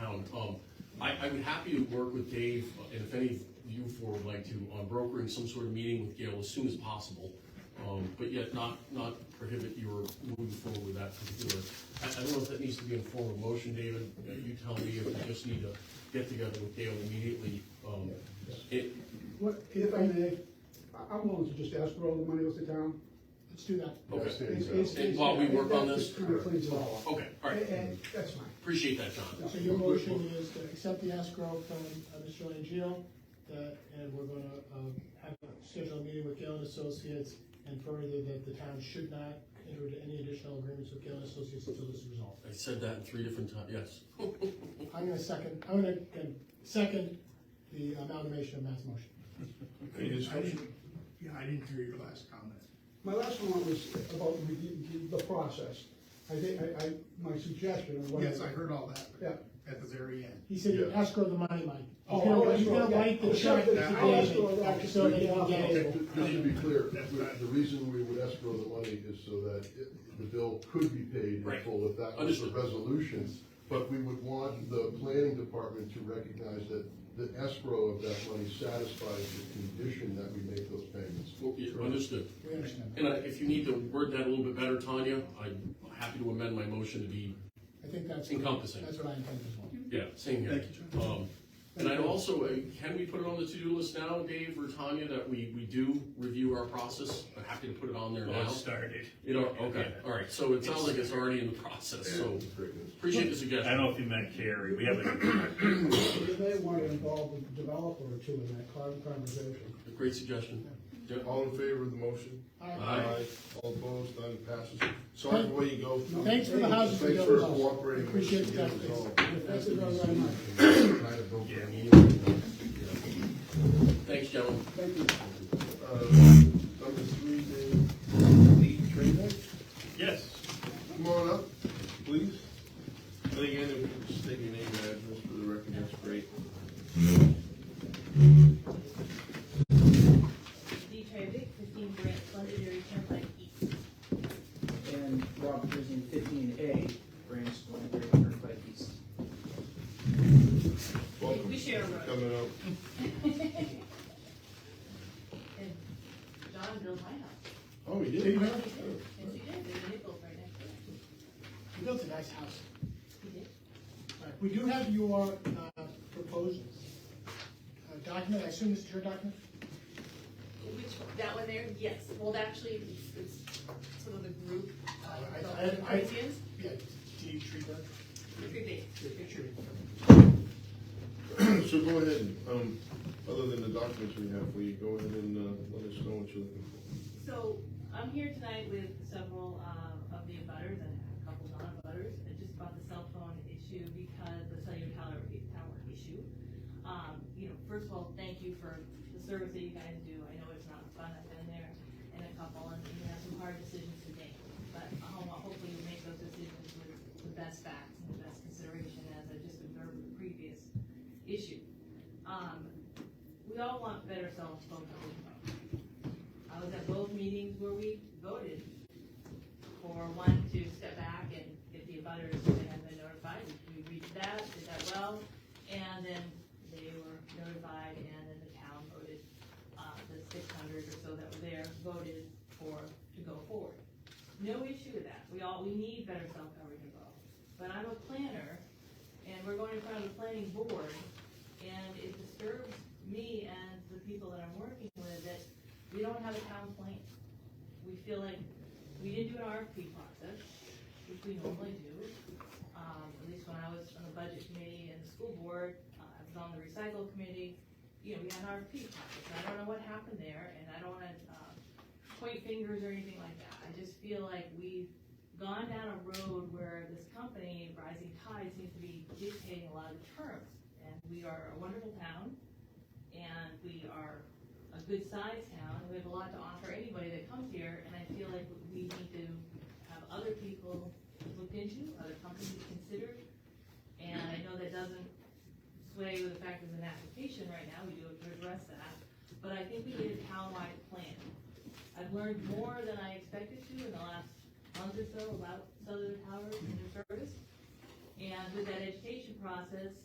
around. Um, I, I would happy to work with Dave, and if any of you four would like to, on brokering some sort of meeting with Gail as soon as possible. Um, but yet not, not prohibit your moving forward with that particular, I, I don't know if that needs to be in form of motion, David. Uh, You tell me if you just need to get together with Gail immediately. Um, it, What, if I may, I- I'm willing to just ask for all the money off the town, let's do that. Okay. It's- it's- And uh, while we work on that this? just kinda cleans it all up. okay, all right, And- And, that's fine. appreciate that, John. So your motion is to accept the escrow from uh, Mr. Langio, that, and we're gonna, um, have a scheduled meeting with Galen Associates, and further that the town should not enter into any additional agreements with Galen Associates until this is resolved. I said that in three different times, yes. I'm gonna second, I'm gonna, uh, second the amalgamation of Matt's motion. I didn't, yeah, I didn't hear your last comment. My last one was about review- the process. I think, I, I, my suggestion of what. Yes, I heard all that, but Yeah. at the very end. He said you escrow the money, Mike. Oh, He's gonna- oh, He's gonna escrow, yeah. write the Oh, check to yeah, I'll escrow David, that. so that he can get Just it. to be clear, we- the reason we would escrow the money is so that it- the bill could be paid in Right. full if that was the Understood. resolution. But we would want the planning department to recognize that the escrow of that money satisfies the condition that we make those payments. Well, yeah, Understood. We understand. And I- if you need to word that a little bit better, Tanya, I'm happy to amend my motion to be, I think that's. Encompassing. That's what I intend as well. yeah, same here. Thank you, Um, And I'd also, uh, can we put it on the to-do list now, Dave or Tanya, that we, we do review our process? I'm happy to put it on there Well, it now. started. You know, okay, all right, so it sounds like it's already in the process, so appreciate the I suggestion. don't know if you meant Carrie, we haven't, You may want to involve a developer or two in that con- conversation. Great suggestion. Yeah. All in favor of the motion? All right. Aye. All opposed, none passes. Sorry the way you go. Thanks for the houses. we Thanks built for us. cooperating. with us Appreciate to the get it updates. resolved. Thank you very, very much. Thanks, gentlemen. Uh, Number three, Dave, lead trainer, yes, come on up, please. And again, if you could state your name and address for the record, that's great. D. Trevik, fifteen Grant Londonderry Turnpike East. and Rob Prison fifteen A, branch going very turnpike east. Welcome. We share a road. Coming up. And John built my house. Oh, we did? Yes, he did, there's a nickel right next to it. We built a nice house. He did? All right, We do have your uh, proposals. Uh, Document, I assume this is your document? Which, that one there, yes, well, actually, it's sort of the group, I- I- Uh, the I- Corinthians, Yeah, D. Treberg. group B. So go ahead, um, other than the documents we have, will you go ahead and, uh, let us know what you're looking for? So I'm here tonight with several uh, of the abutters and a couple non-abutters. I just brought the cell phone issue because the cellular tower, tower issue. Um, You know, first of all, thank you for the service that you guys do. I know it's not fun, I've been there in a couple and you have some hard decisions to make. But uh, ho- hopefully you make those decisions with the best facts and the best consideration as I just observed with the previous issue. Um, We all want better cell phone coverage. I was at both meetings where we voted for one to step back and get the abutters that had been notified, we reached that, did that well, and then they were notified, and then the town voted, uh, the six hundred or so that were there voted for, to go forward. No issue with that, we all, we need better cell coverage involved, but I'm a planner, and we're going in front of the planning board, and it disturbs me and the people that I'm working with that we don't have a town plan. We feel like we didn't do an RFP process, which we normally do. Um, at least when I was on the budget committee and the school board, uh, I was on the recycle committee, you know, we had an RFP process. I don't know what happened there, and I don't wanna, uh, point fingers or anything like that. I just feel like we've gone down a road where this company, Rising Tide, seems to be dictating a lot of terms. And we are a wonderful town, and we are a good sized town, we have a lot to offer anybody that comes here, and I feel like we need to have other people looked into, other companies considered. And I know that doesn't sway with the fact there's an application right now, we do have to address that, but I think we need a townwide plan. I've learned more than I expected to in the last month or so about Southern Power and their service. And with that education process,